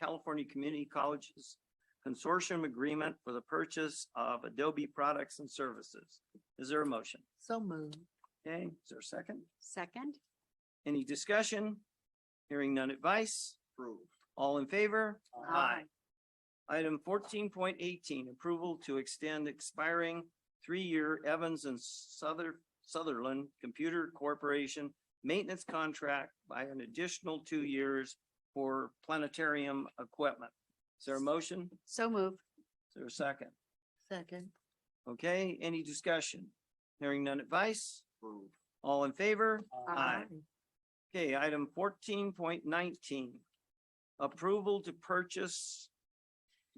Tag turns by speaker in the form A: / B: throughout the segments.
A: California Community Colleges Consortium Agreement for the purchase of Adobe products and services. Is there a motion?
B: So moved.
A: Okay, is there a second?
B: Second?
A: Any discussion? Hearing none advice?
C: Approved.
A: All in favor? Item fourteen point eighteen, approval to extend expiring three-year Evans and Souther- Sutherland Computer Corporation maintenance contract by an additional two years for planetarium equipment. Is there a motion?
B: So moved.
A: Is there a second?
B: Second?
A: Okay, any discussion? Hearing none advice?
C: Approved.
A: All in favor? Aye. Okay, item fourteen point nineteen. Approval to purchase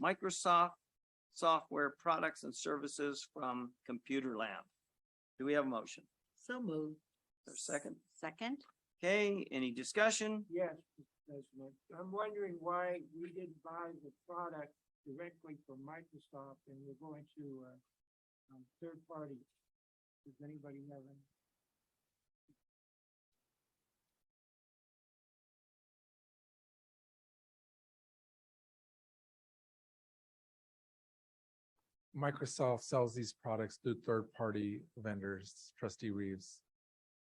A: Microsoft software products and services from Computer Lab. Do we have a motion?
B: So moved.
A: Is there a second?
B: Second?
A: Okay, any discussion?
D: Yes, Mr. President. I'm wondering why we didn't buy the product directly from Microsoft and we're going to, uh, um, third party. Does anybody have any?
E: Microsoft sells these products through third-party vendors, trustee Reeves.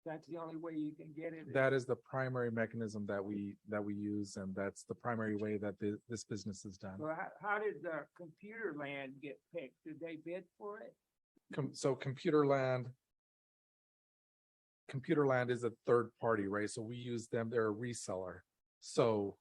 D: That's the only way you can get it.
E: That is the primary mechanism that we, that we use, and that's the primary way that thi- this business is done.
D: Well, how, how did the computer land get picked? Did they bid for it?
E: Com- so Computer Land. Computer Land is a third party, right? So we use them, they're a reseller. So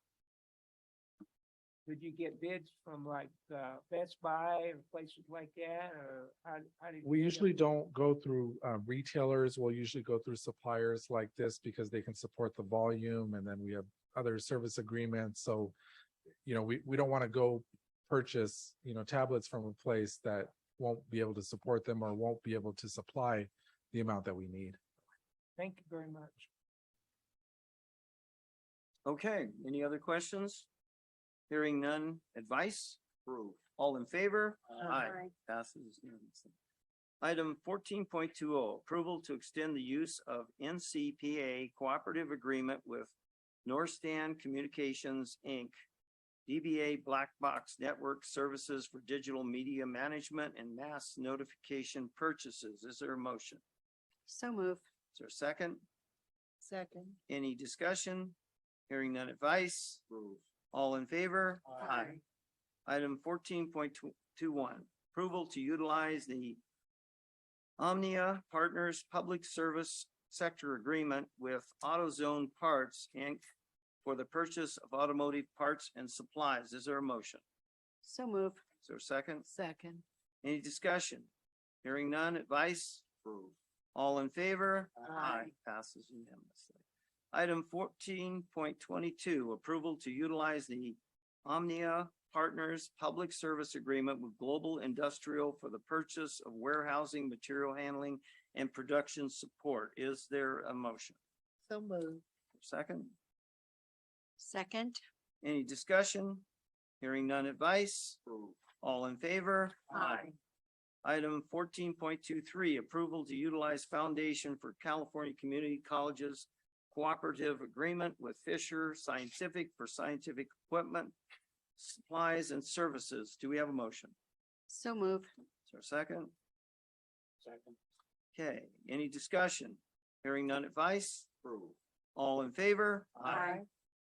D: Did you get bids from like, uh, Best Buy or places like that or how, how did?
E: we
D: you get
E: usually
D: them?
E: don't go through uh, retailers. We'll usually go through suppliers like this because they can support the volume and then we have other service agreements. So, you know, we, we don't want to go purchase, you know, tablets from a place that won't be able to support them or won't be able to supply the amount that we need.
D: Thank you very much.
A: Okay, any other questions? Hearing none, advice?
C: Approved.
A: All in favor?
C: Aye.
A: Passes unanimously. Item fourteen point two oh, approval to extend the use of NCPA cooperative agreement with Norstan Communications, Inc., DBA Black Box Network Services for Digital Media Management and Mass Notification Purchases. Is there a motion?
B: So moved.
A: Is there a second?
B: Second?
A: Any discussion? Hearing none advice?
C: Approved.
A: All in favor? Item fourteen point two one, approval to utilize the Omnia Partners Public Service Sector Agreement with AutoZone Parts, Inc. for the purchase of automotive parts and supplies. Is there a motion?
B: So moved.
A: Is there a second?
B: Second?
A: Any discussion? Hearing none, advice?
C: Approved.
A: All in favor?
D: Aye.
A: Passes unanimously. Item fourteen point twenty-two, approval to utilize the Omnia Partners Public Service Agreement with Global Industrial for the purchase of warehousing, material handling, and production support. Is there a motion?
B: So moved.
A: Second,
B: Second?
A: any discussion? Hearing none advice?
C: Approved.
A: All in favor?
B: Aye.
A: Item fourteen point two three, approval to utilize Foundation for California Community Colleges Cooperative Agreement with Fisher Scientific for scientific equipment, supplies and services. Do we have a motion?
B: So moved.
A: Is there a second?
C: Second.
A: Okay, any discussion? Hearing none advice?
C: Approved.
A: All in favor?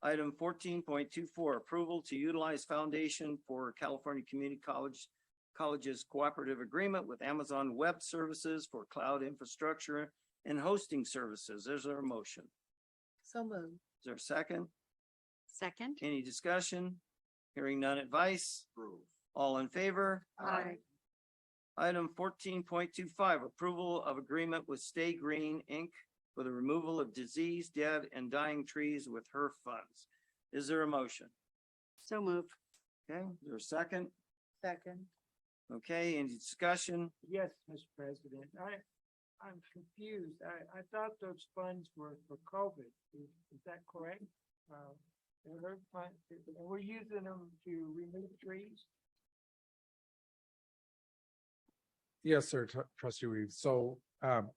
A: Item fourteen point two four, approval to utilize Foundation for California Community College Colleges Cooperative Agreement with Amazon Web Services for Cloud Infrastructure and Hosting Services. Is there a motion?
B: So moved.
A: Is there a second?
B: Second?
A: Any discussion? Hearing none advice?
C: Approved.
A: All in favor?
B: Aye.
A: Item fourteen point two five, approval of agreement with Stay Green, Inc. for the removal of disease, dead, and dying trees with her funds. Is there a motion?
B: So moved.
A: Okay, is there a second?
B: Second?
A: Okay, any discussion?
D: Yes, Mr. President, I, I'm confused. I, I thought those funds were for COVID. Is, is that correct? Uh, they're her fund, and we're using them to remove trees?
E: Yes, sir, tr- trustee Reeves. So um,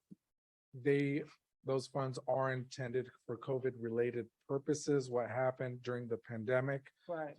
E: they, those funds are intended for COVID-related purposes. What happened during the pandemic
D: But